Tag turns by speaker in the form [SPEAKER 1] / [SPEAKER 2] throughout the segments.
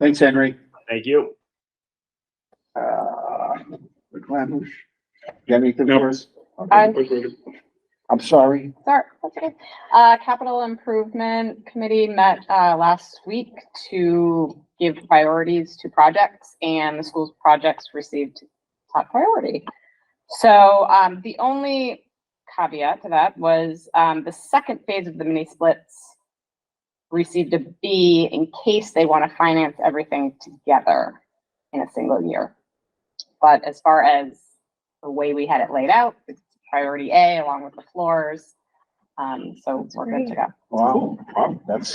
[SPEAKER 1] Thanks, Henry.
[SPEAKER 2] Thank you.
[SPEAKER 1] Uh, McClamish, you have anything
[SPEAKER 2] No.
[SPEAKER 1] for us?
[SPEAKER 3] I'm-
[SPEAKER 1] I'm sorry.
[SPEAKER 3] Sorry, that's okay. Uh, Capital Improvement Committee met, uh, last week to give priorities to projects and the school's projects received top priority. So, um, the only caveat to that was, um, the second phase of the mini splits received a B in case they want to finance everything together in a single year. But as far as the way we had it laid out, it's priority A along with the floors. Um, so we're good to go.
[SPEAKER 1] Wow, wow, that's,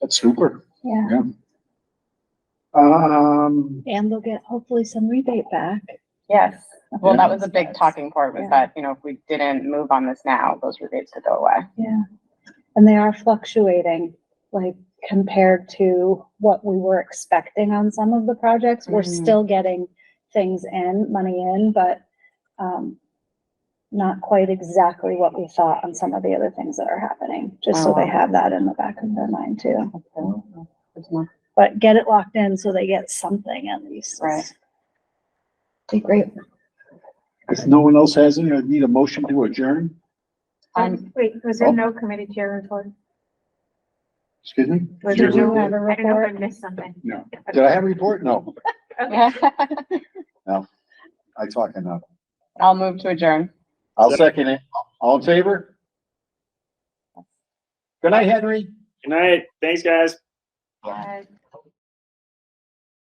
[SPEAKER 1] that's super.
[SPEAKER 4] Yeah,
[SPEAKER 1] Um,
[SPEAKER 4] and they'll get hopefully some rebate back.
[SPEAKER 3] Yes. Well, that was a big
[SPEAKER 4] Yes.
[SPEAKER 3] talking point was
[SPEAKER 4] Yeah.
[SPEAKER 3] that, you know, if we didn't move on this now, those rebates could go away.
[SPEAKER 4] Yeah. And they are fluctuating, like compared to what we were expecting on some of the projects. We're
[SPEAKER 3] Mhm.
[SPEAKER 4] still getting things in, money in, but um not quite exactly what we thought on some of the other things that are happening, just so
[SPEAKER 3] Oh.
[SPEAKER 4] they have that in the back of their mind too.
[SPEAKER 3] Good to know.
[SPEAKER 4] But get it locked in so they get something at least.
[SPEAKER 3] Right.
[SPEAKER 4] Be great.
[SPEAKER 1] if no one else has any, I need a motion to adjourn,
[SPEAKER 3] Um,
[SPEAKER 5] Wait, was
[SPEAKER 1] oh.
[SPEAKER 5] there no committee chair report?
[SPEAKER 1] excuse me?
[SPEAKER 5] Was
[SPEAKER 4] Did
[SPEAKER 5] there
[SPEAKER 1] Did
[SPEAKER 4] you
[SPEAKER 5] no, I
[SPEAKER 4] have
[SPEAKER 5] don't
[SPEAKER 4] a
[SPEAKER 5] know if I
[SPEAKER 4] report?
[SPEAKER 5] missed something.
[SPEAKER 1] I have a report? No, I talk enough.
[SPEAKER 3] I'll move to adjourn.
[SPEAKER 1] I'll second it. All in favor? Good night, Henry.
[SPEAKER 2] Good night. Thanks, guys.
[SPEAKER 5] Uh,